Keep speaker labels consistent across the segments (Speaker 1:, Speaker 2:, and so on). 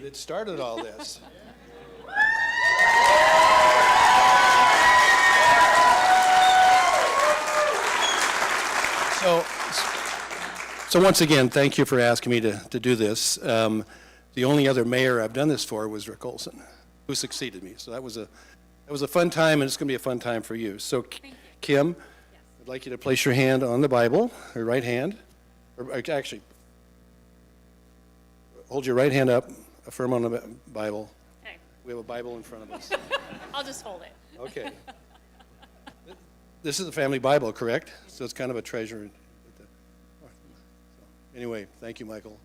Speaker 1: that started all this. So, so once again, thank you for asking me to, to do this. Um, The only other mayor I've done this for was Rick Olson, who succeeded me. So that was a, that was a fun time, and it's going to be a fun time for you. So Kim, I'd like you to place your hand on the Bible, your right hand, or uh, actually, hold your right hand up, affirm on the Bi- Bible.
Speaker 2: Okay,
Speaker 1: We have a Bible in front of us.
Speaker 2: I'll just hold it.
Speaker 1: Okay. This is the family Bible, correct? So it's kind of a treasure. Anyway, thank you, Michael.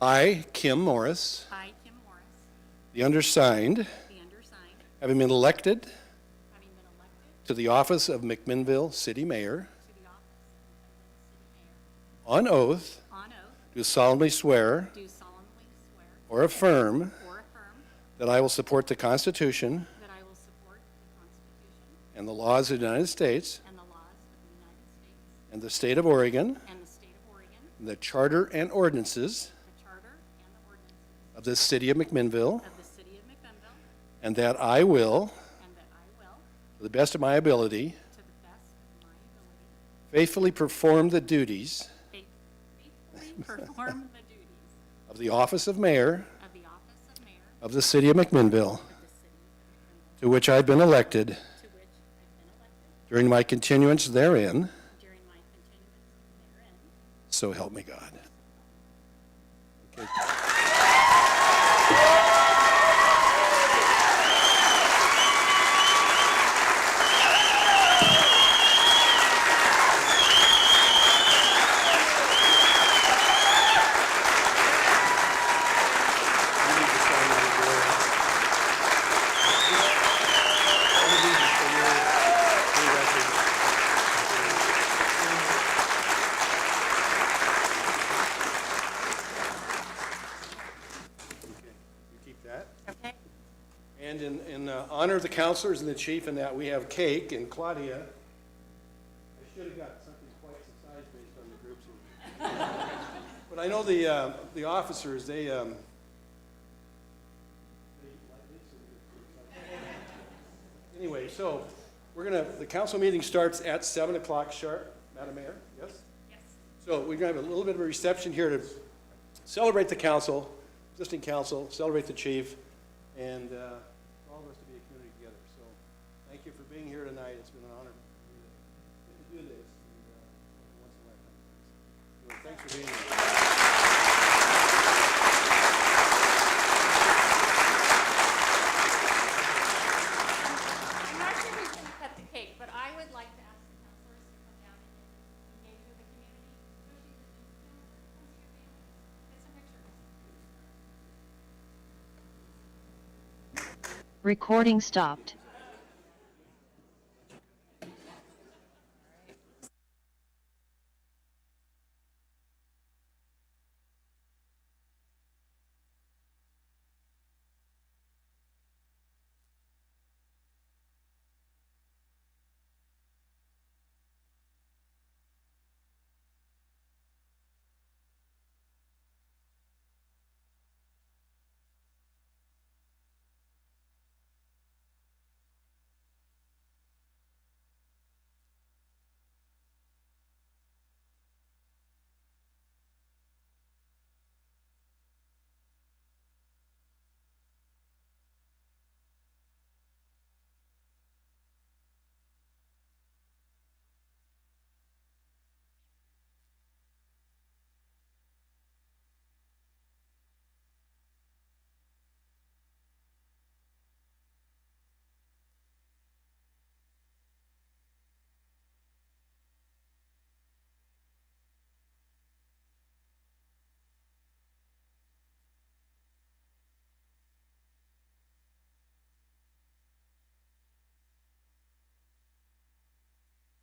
Speaker 1: I, Kim Morris,
Speaker 2: I, Kim Morris,
Speaker 1: the undersigned,
Speaker 2: the undersigned,
Speaker 1: having been elected
Speaker 2: having been elected
Speaker 1: to the office of McMinnville City Mayor,
Speaker 2: to the office of Cleveland
Speaker 1: on
Speaker 2: City Mayor,
Speaker 1: oath,
Speaker 2: on oath,
Speaker 1: do solemnly swear
Speaker 2: do solemnly swear
Speaker 1: or affirm
Speaker 2: or affirm
Speaker 1: that I will support the Constitution
Speaker 2: that I will support the Constitution
Speaker 1: and the laws of the United States
Speaker 2: and the laws of the United States
Speaker 1: and the state of Oregon,
Speaker 2: and the state of Oregon,
Speaker 1: and the charter and ordinances
Speaker 2: the charter and the ordinances
Speaker 1: of the city of McMinnville,
Speaker 2: of the city of McBenville,
Speaker 1: and that I will,
Speaker 2: and that I will,
Speaker 1: to the best of my ability,
Speaker 2: to the best of my ability,
Speaker 1: faithfully perform the duties
Speaker 2: faith- faithfully perform the duties
Speaker 1: of the office of mayor
Speaker 2: of the office of mayor
Speaker 1: of the city of McMinnville,
Speaker 2: of the city of McBenville,
Speaker 1: to which I've been elected
Speaker 2: to which I've been elected
Speaker 1: during my continuance therein,
Speaker 2: during my continuance therein.
Speaker 1: so help me God. Okay. You keep that.
Speaker 2: Okay.
Speaker 1: And in, in uh, honor of the counselors and the chief and that, we have cake and Claudia. I should have got something twice the size based on the groups. But I know the, uh, the officers, they, um, they like this and- Anyway, so we're gonna, the council meeting starts at seven o'clock sharp. Madam Mayor, yes?
Speaker 2: Yes.
Speaker 1: So we're going to have a little bit of a reception here to celebrate the council, existing council, celebrate the chief, and uh, all of us to be a community together. So thank you for being here tonight. It's been an honor to do this. and, uh, once in a lifetime. Thanks for being here.
Speaker 2: I'm not sure who's going to cut the cake, but I would like to ask the counselors to come down and engage with the community, especially the new counselors, come see your families, get some pictures.
Speaker 3: Recording stopped.